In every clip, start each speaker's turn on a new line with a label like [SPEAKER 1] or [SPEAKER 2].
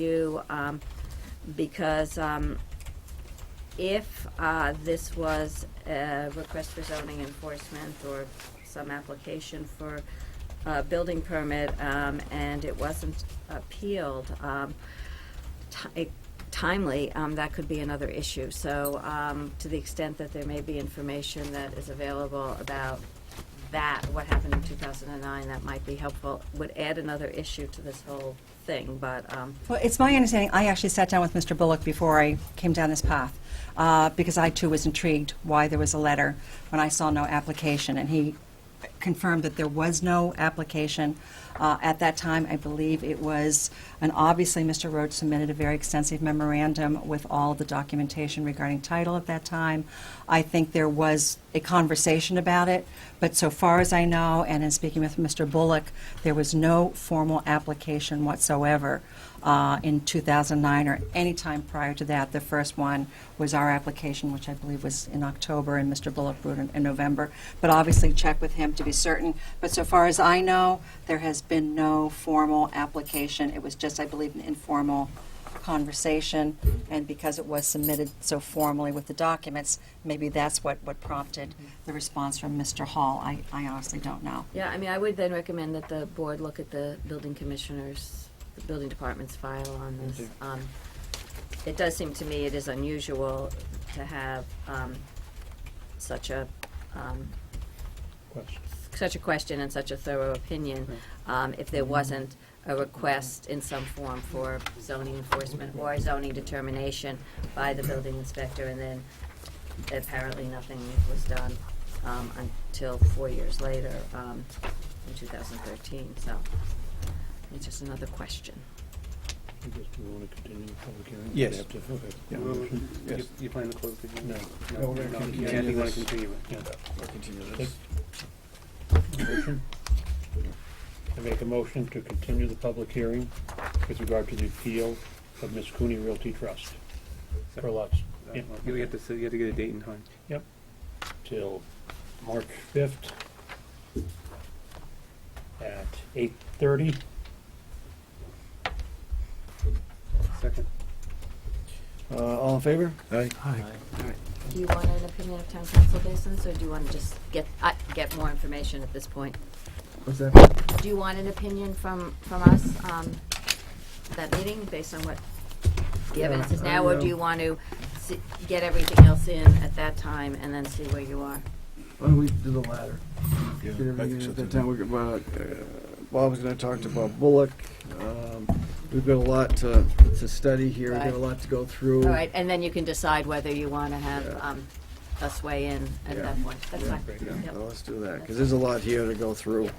[SPEAKER 1] you, um, because, um, if, uh, this was a request for zoning enforcement or some application for a building permit, um, and it wasn't appealed, um, ti- timely, um, that could be another issue. So, um, to the extent that there may be information that is available about that, what happened in two thousand and nine, that might be helpful, would add another issue to this whole thing, but, um,
[SPEAKER 2] Well, it's my understanding, I actually sat down with Mr. Bullock before I came down this path, uh, because I too was intrigued why there was a letter when I saw no application, and he confirmed that there was no application. Uh, At that time, I believe it was, and obviously, Mr. Rhodes submitted a very extensive memorandum with all the documentation regarding title at that time. I think there was a conversation about it, but so far as I know, and in speaking with Mr. Bullock, there was no formal application whatsoever uh, in 2009 or any time prior to that. The first one was our application, which I believe was in October, and Mr. Bullock wrote in in November. But obviously, check with him to be certain. But so far as I know, there has been no formal application. It was just, I believe, an informal conversation, and because it was submitted so formally with the documents, maybe that's what, what prompted the response from Mr. Hall. I, I honestly don't know.
[SPEAKER 1] yeah, I mean, I would then recommend that the board look at the building commissioners, the building department's file on this. Um, It does seem to me it is unusual to have, um, such a, um,
[SPEAKER 3] question.
[SPEAKER 1] such a question and such a thorough opinion um, if there wasn't a request in some form for zoning enforcement or a zoning determination by the building inspector, and then apparently nothing was done um, until four years later, um, in 2013, so it's just another question.
[SPEAKER 3] I guess we want to continue the public hearing.
[SPEAKER 4] Yes.
[SPEAKER 3] We have to- okay.
[SPEAKER 4] Yeah.
[SPEAKER 5] Well, you-
[SPEAKER 4] Yes.
[SPEAKER 5] You plan to close the hearing?
[SPEAKER 3] No. No,
[SPEAKER 5] No, no,
[SPEAKER 3] we're gonna
[SPEAKER 5] you
[SPEAKER 3] continue
[SPEAKER 5] want
[SPEAKER 3] this.
[SPEAKER 5] to continue it.
[SPEAKER 3] Yeah.
[SPEAKER 4] Or continue
[SPEAKER 3] this. Motion? I make a motion to continue the public hearing with regard to the appeal of Miss Cooney Realty Trust for lots Yeah.
[SPEAKER 5] You have to, s- you have to get a date and time.
[SPEAKER 3] till March fifth at eight thirty.
[SPEAKER 5] Second.
[SPEAKER 4] Uh, all in favor? Aye.
[SPEAKER 1] Do you want an opinion of town council based on this, or do you want to just get, uh, get more information at this point?
[SPEAKER 4] What's that?
[SPEAKER 1] Do you want an opinion from, from us, um, that meeting, based on what the evidence is now? Or do you want to se- get everything else in at that time and then see where you are?
[SPEAKER 6] Why don't we do the latter?
[SPEAKER 4] Yeah, I
[SPEAKER 6] Get
[SPEAKER 4] think
[SPEAKER 6] everything
[SPEAKER 4] so
[SPEAKER 6] at that
[SPEAKER 4] too.
[SPEAKER 6] time. We're, gonna- uh, Bob's gonna talk to Bob Bullock. Um, We've got a lot to, to study here. We've got a
[SPEAKER 1] Right.
[SPEAKER 6] lot to go through.
[SPEAKER 1] All right, and then you can decide whether you want to have,
[SPEAKER 6] Yeah.
[SPEAKER 1] um, us weigh in at
[SPEAKER 6] Yeah.
[SPEAKER 1] that point. That's fine.
[SPEAKER 6] Yeah,
[SPEAKER 1] Yep.
[SPEAKER 6] well, let's do that, because there's a lot here to go through.
[SPEAKER 1] Okay,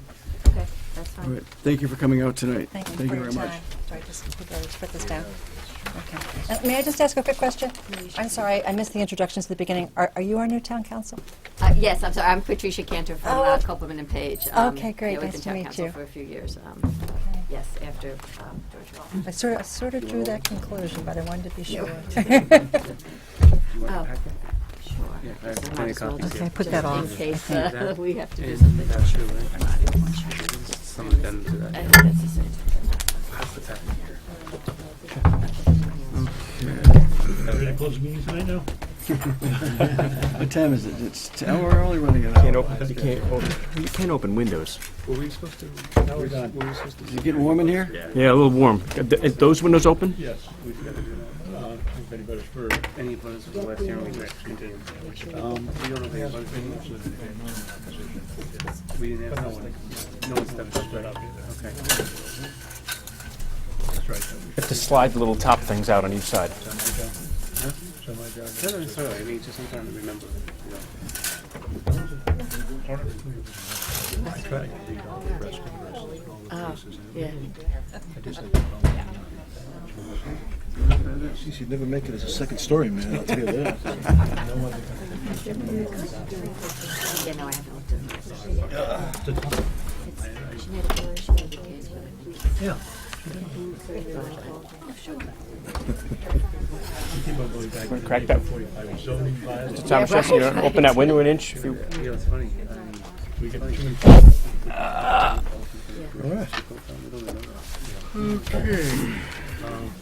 [SPEAKER 1] that's
[SPEAKER 6] All
[SPEAKER 1] fine.
[SPEAKER 6] right, thank you for coming out tonight.
[SPEAKER 2] Thank you for
[SPEAKER 6] very
[SPEAKER 2] your
[SPEAKER 6] much.
[SPEAKER 2] time. Do I just put those- put this down? Okay. Uh, May I just ask a quick question? I'm sorry, I missed the introductions at the beginning. Are are you our new town council?
[SPEAKER 1] Uh, yes, I'm sorry, I'm Patricia Cantor from,
[SPEAKER 2] Oh,
[SPEAKER 1] uh,
[SPEAKER 2] okay.
[SPEAKER 1] Copeland and Page. Um,
[SPEAKER 2] Okay, great.
[SPEAKER 1] yeah, we've
[SPEAKER 2] Nice
[SPEAKER 1] been
[SPEAKER 2] to
[SPEAKER 1] town
[SPEAKER 2] meet
[SPEAKER 1] council
[SPEAKER 2] you.
[SPEAKER 1] For a few years, um, yes, after, um, George Wall.
[SPEAKER 2] I sort of, sort of drew that conclusion, but I wanted to be sure.
[SPEAKER 1] Oh, sure.
[SPEAKER 5] Yeah,
[SPEAKER 1] I
[SPEAKER 5] I
[SPEAKER 1] guess
[SPEAKER 5] have
[SPEAKER 1] I might
[SPEAKER 5] plenty
[SPEAKER 1] as
[SPEAKER 5] of
[SPEAKER 1] well
[SPEAKER 5] copies
[SPEAKER 1] just-
[SPEAKER 5] here.
[SPEAKER 2] Okay, put
[SPEAKER 1] just
[SPEAKER 2] that off.
[SPEAKER 1] In case
[SPEAKER 2] Okay.
[SPEAKER 1] uh, we have to do
[SPEAKER 5] Isn't
[SPEAKER 1] something.
[SPEAKER 5] that true, right?
[SPEAKER 1] about it.
[SPEAKER 5] Someone done to
[SPEAKER 1] I
[SPEAKER 5] that.
[SPEAKER 1] think that's the same.
[SPEAKER 5] Pass the time here.
[SPEAKER 3] Ready to close the meeting tonight now?
[SPEAKER 6] What time is it? It's, t- oh, we're only running an hour.
[SPEAKER 4] you can't open, you can't open windows.
[SPEAKER 5] Were we supposed to?
[SPEAKER 3] Now we're done.
[SPEAKER 5] Were we supposed to?
[SPEAKER 6] Is it getting warm in here?
[SPEAKER 7] Yeah, a little warm. Are th- Is those windows open?
[SPEAKER 3] Yes, we've got to do that. Uh, if anybody's for,
[SPEAKER 5] Any opponents for the last hearing we could actually do?
[SPEAKER 3] um,
[SPEAKER 5] We don't have any opponents. We didn't have, no one, no one stepped up, right? Okay.
[SPEAKER 3] that's right.
[SPEAKER 7] You have to slide the little top things out on each side.
[SPEAKER 3] So my job is-
[SPEAKER 5] Not necessarily, I mean, it's just sometimes to remember, you know.
[SPEAKER 1] Yeah.
[SPEAKER 4] She's never make it as a second story, man, I'll tell you that.
[SPEAKER 1] Yeah, no, I haven't looked at it. It's- She made a case, she made a case, but I think
[SPEAKER 3] Yeah.
[SPEAKER 7] Wanna Crack that.
[SPEAKER 3] Zoning violation.
[SPEAKER 7] Thomas Jesse, you know, open that window an inch. If you,
[SPEAKER 5] You know, it's funny. um,
[SPEAKER 3] We get too many.
[SPEAKER 4] All right.
[SPEAKER 5] we don't remember.